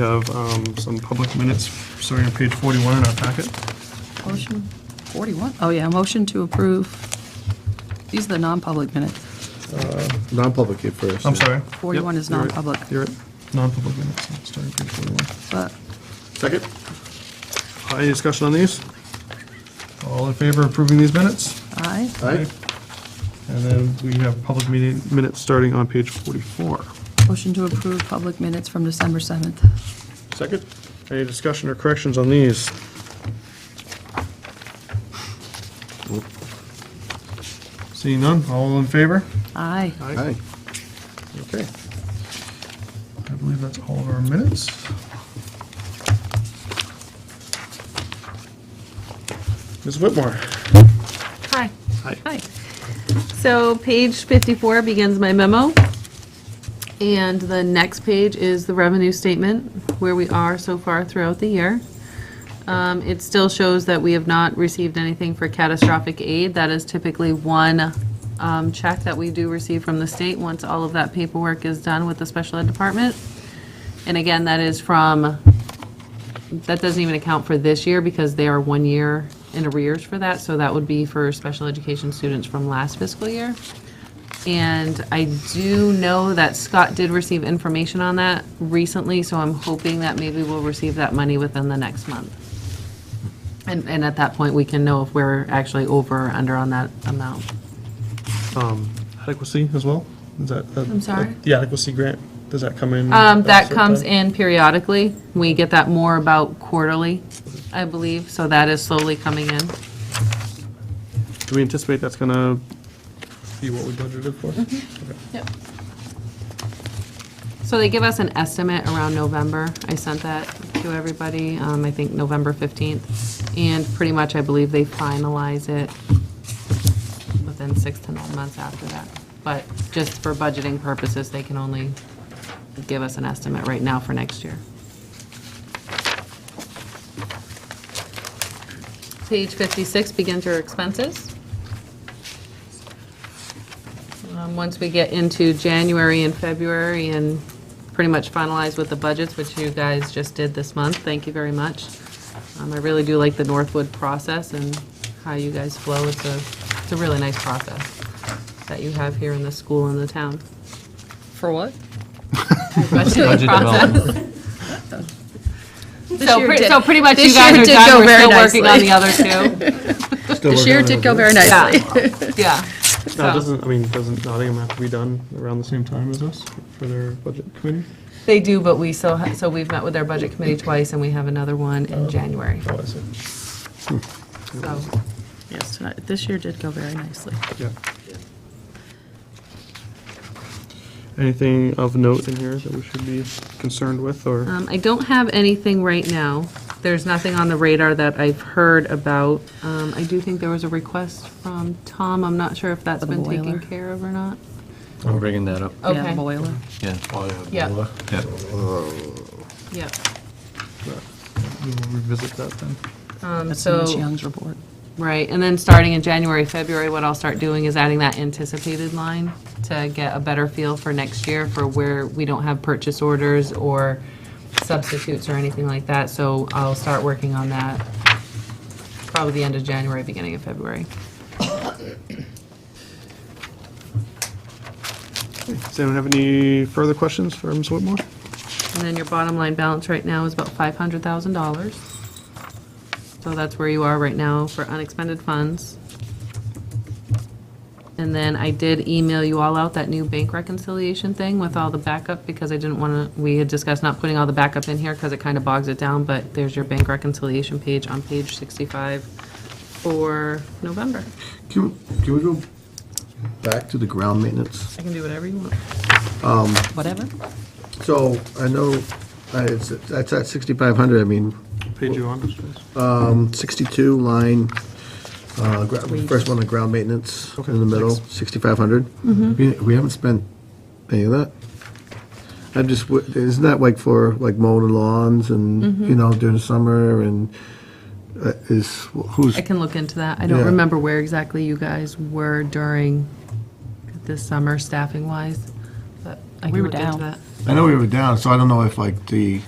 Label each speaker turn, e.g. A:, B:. A: We have um, some public minutes, starting on page 41 in our packet.
B: Motion 41, oh yeah, motion to approve. These are the non-public minutes.
C: Non-public here first.
A: I'm sorry.
B: 41 is
A: You're right.
B: non-public.
A: You're right. Non-public minutes, starting on page 41.
B: But
C: Second?
A: Uh, Any discussion on these? All in favor of approving these minutes?
B: I,
C: Aye.
A: And then we have public meeting minutes starting on page 44.
B: motion to approve public minutes from December 7th.
A: Second. Any discussion or corrections on these? Seeing none, all in favor?
B: Aye.
C: Aye.
A: Okay. I believe that's all of our minutes. Ms. Whitmore?
D: Hi.
A: Hi.
D: Hi. So page 54 begins my memo, and the next page is the revenue statement, where we are so far throughout the year. Um, It still shows that we have not received anything for catastrophic aid. That is typically one um, check that we do receive from the state once all of that paperwork is done with the special ed department. And again, that is from that doesn't even account for this year because they are one year in arrears for that, so that would be for special education students from last fiscal year. And I do know that Scott did receive information on that recently, so I'm hoping that maybe we'll receive that money within the next month. And, and at that point, we can know if we're actually over or under on that amount.
A: Um, Adequacy as well? Is that?
D: I'm sorry?
A: The adequacy grant, does that come in?
D: Um,
A: at a
D: that
A: certain
D: comes
A: time?
D: in periodically. We get that more about quarterly, I believe, so that is slowly coming in.
A: Do we anticipate that's gonna be what we budgeted for? Okay.
D: Yep. So they give us an estimate around November. I sent that to everybody, um, I think November 15th. And pretty much, I believe they finalize it within six to nine months after that. But just for budgeting purposes, they can only give us an estimate right now for next year. Page 56 begins your expenses. Um, Once we get into January and February and pretty much finalize with the budgets, which you guys just did this month, thank you very much. Um, I really do like the Northwood process and how you guys flow. It's a, it's a really nice process that you have here in the school and the town. For what? Budgeting process.
B: This
D: So
B: year
D: pretty,
B: did-
D: so pretty much you
B: this
D: guys
B: year
D: are
B: did
D: done.
B: go
D: We're
B: very
D: still working on
B: nicely.
D: the other two.
A: Still working
B: This year
A: on it
B: did
A: over
B: go
A: there.
B: very nicely.
D: Yeah. Yeah.
A: No, it
D: So-
A: doesn't, I mean, doesn't Nottingham have to be done around the same time as us for their budget committee?
D: They do, but we still, ha- so we've met with our budget committee twice, and we have another one in January,
A: Oh, I see.
D: so.
B: Yes, tonight- this year did go very nicely.
A: Yeah. Anything of note in here that we should be concerned with, or?
D: Um, I don't have anything right now. There's nothing on the radar that I've heard about. Um, I do think there was a request from Tom, I'm not sure if that's
B: For the
D: been
B: boiler.
D: taken care of or not.
E: I'm bringing that up,
B: Yeah, the
D: Okay,
B: boiler.
E: yeah.
D: yeah,
E: Yeah.
D: yeah.
A: We'll revisit that then.
D: Um,
B: That's in Ms.
D: so,
B: Young's report.
D: right, and then starting in January, February, what I'll start doing is adding that anticipated line to get a better feel for next year for where we don't have purchase orders or substitutes or anything like that. So I'll start working on that probably the end of January, beginning of February.
A: Does anyone have any further questions for Ms. Whitmore?
D: And then your bottom line balance right now is about $500,000. So that's where you are right now for unexpended funds. And then I did email you all out that new bank reconciliation thing with all the backup because I didn't want to, we had discussed not putting all the backup in here because it kind of bogs it down, but there's your bank reconciliation page on page 65 for November.
C: Can, can we go back to the ground maintenance?
D: I can do whatever you want.
B: Whatever.
C: So I know, I- it's, that's at 6,500, I mean,
A: Page you on, please.
C: um, 62 line, uh, gra- first one, the ground maintenance
A: Okay,
C: in the middle, 6,500. We we haven't spent any of that. I'm just, w- isn't that like for, like mowing lawns and, you know, during the summer and uh, is, who's?
D: I can look into that. I don't
C: Yeah.
D: remember where exactly you guys were during this summer staffing wise, but
B: like
D: We
B: we're
D: looked into
B: down.
D: that.
C: I know we were down, so I don't know if like the